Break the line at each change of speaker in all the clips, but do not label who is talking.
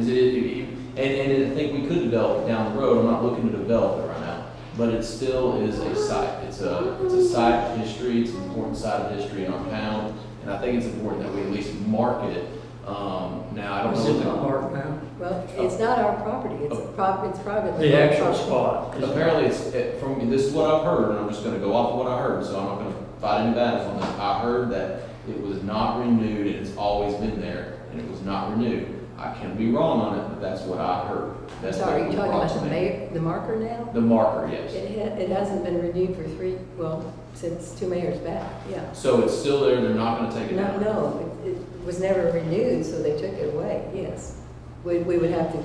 Is it- it- And, and I think we could develop it down the road, I'm not looking to develop it right now, but it still is a site. It's a, it's a site of history, it's an important site of history in our town, and I think it's important that we at least mark it. Um, now, I don't
It's
know.
in the
what
park now.
Well, it's not our property, it's a prop, it's private.
The actual
property.
spot.
the- Apparently, it's, it- from, this is what I've heard, and I'm just gonna go off of what I heard, so I'm not gonna fight any battles on this. I heard that it was not renewed, and it's always been there, and it was not renewed. I can be wrong on it, but that's what I heard. That's
So are
what
you
was
talking
brought
about
to
the
me.
mayor, the marker now?
The marker, yes.
It ha, it hasn't been renewed for three, well, since two mayors back, yeah.
So it's still there, they're not gonna take it
No,
down?
no, it, it was never renewed, so they took it away, yes. We, we would have to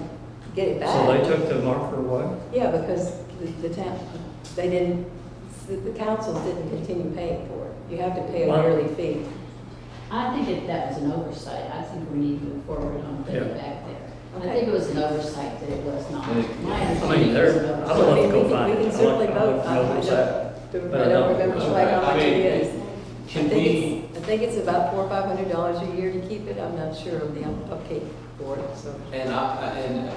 get it back.
So they took the marker away?
Yeah, because the, the town, they didn't, the, the councils didn't continue paying for it. You have to pay a
Wow.
yearly fee.
I think that that was an oversight. I think we need to move forward on putting it back there. I
Okay.
think it was an oversight that it was not. My
I mean,
understanding
there,
was an
I
oversight.
would love to go
So we- we
find
can-
it. I'd
we can
like-
certainly
I'd
vote.
like to know
I- I
what's
don't-
that. Uh, But
I don't remember
Okay,
quite how
I
much it
mean,
is. I
Can
think
we,
it's, I think it's about four or five hundred dollars a year to keep it, I'm not sure of the upkeep for it, so.
and I, I- and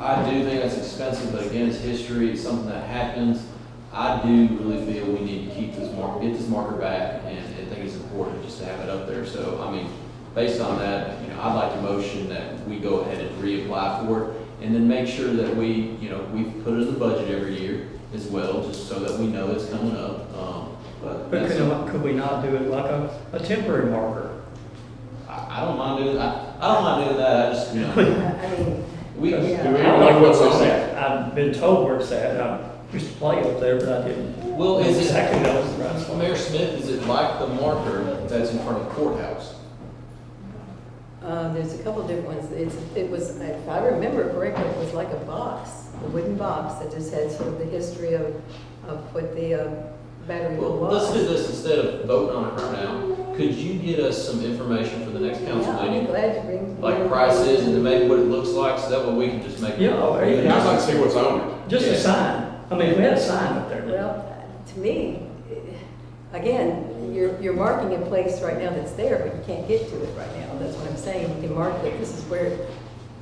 I I do think that's expensive, but again, it's history, it's something that happens. I do really feel we need to keep this mark, get this marker back, and I think it's important just to have it up there. So, I mean, based on that, you know, I'd like to motion that we go ahead and reapply for it, and then make sure that we, you know, we put it in the budget every year as well, just so that we know it's coming up, um, but.
But
that's-
could, could we not do it like a, a temporary marker?
I, I don't mind doing, I, I don't mind doing that, I just, you know.
I mean,
We,
Because
yeah.
I don't know what's on that. I've been told where it's at. I used to play up there, but I didn't.
well, is it,
Exactly, that was the right spot.
Mayor Smith, is it like the marker that's in front of the courthouse?
uh, there's a couple different ones, it's, it was, if I remember correctly, it was like a box, a wooden box that just had sort of the history of, of what the, uh, battery
Well,
was.
let's do this instead of voting on it right now. Could you get us some information for the next council
Yeah, I'd be
meeting?
Glad to bring.
Like prices and maybe what it looks like, so that way we can just make.
Yeah, or even-
Yeah, I'd like to see what's on
Just
Yeah.
a sign. I mean, we had a sign up there. didn't
Well, to me, eh, again, you're, you're marking a place right now that's there, but you can't get to it right now. That's what I'm saying, you can mark that this is where. the-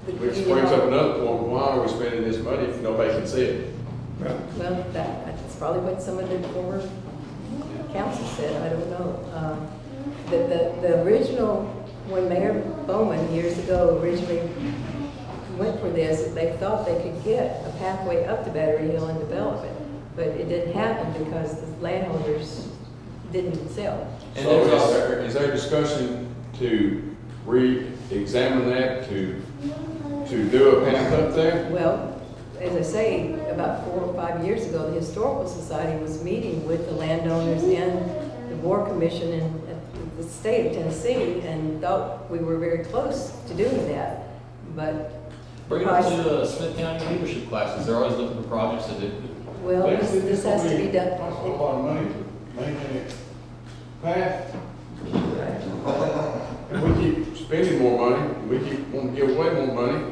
it, which brings up another point, why are we spending this money if nobody can see it?
we? Right.
Well, that, that's probably what some of the former council said, I don't know. Um, The, the, the original, when Mayor Bowman years ago originally went for this, they thought they could get a pathway up to Battery Hill and develop it. But it didn't happen because the landowners didn't sell.
And
So
there's
is
also-
there, is there discussion to re-examine that, to, to do a path up there?
Well, as I say, about four or five years ago, the Historical Society was meeting with the landowners and the War Commission in at the state of Tennessee and thought we were very close to doing that. But,
Bring it up to uh, Smith County leadership classes, they're always looking for projects to do.
well, this this has to be done.
That's a lot of money to maintain a path. If we keep spending more money, we keep wanting to give away more money,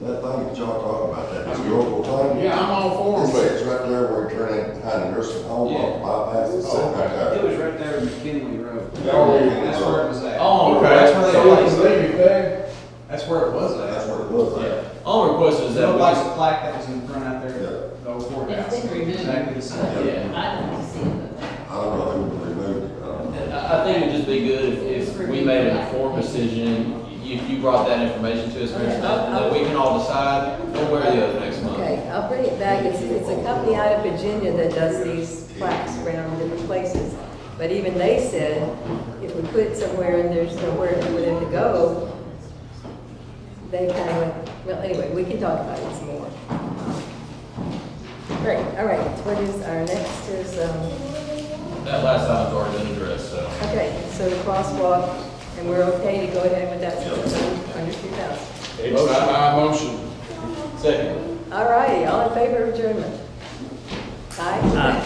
That thing that y'all talking about, that historical thing.
yeah, I'm all
It
for it,
sits right there where you turn in behind the nursing home, uh,
Yeah.
bypass it, sitting right
It
there.
was right there in McKinley Road.
Oh, yeah.
That's where it was at.
but.
Oh,
Okay,
that's where they
so we
always.
can leave it there.
That's where it was
That's
at.
what it was
Yeah.
like.
All request is that. we-
Nobody's plaque that was in front out there,
Yeah.
the old courthouse.
It's been removed.
Exactly the same.
Yeah.
I'd like to see it. but-
I don't know who removed it, I don't know.
I, I think it'd just be good if, if we made an informed decision, you, you brought that information to us, Mayor Smith, and that we can all decide one way or the other next month.
Okay, I'll bring it back. It's, it's a company out of Virginia that does these plaques around different places. But even they said, if we put it somewhere and there's nowhere for them to go, they kind of went, well, anyway, we can talk about it some more. Great, all right, what is, our next is, um,
That last item's already been addressed, so.
okay, so the crosswalk, and we're okay to go ahead with that, so under two thousand.
It's not my motion.
Second.
All righty, all in favor of adjournment? Aye?
Aye.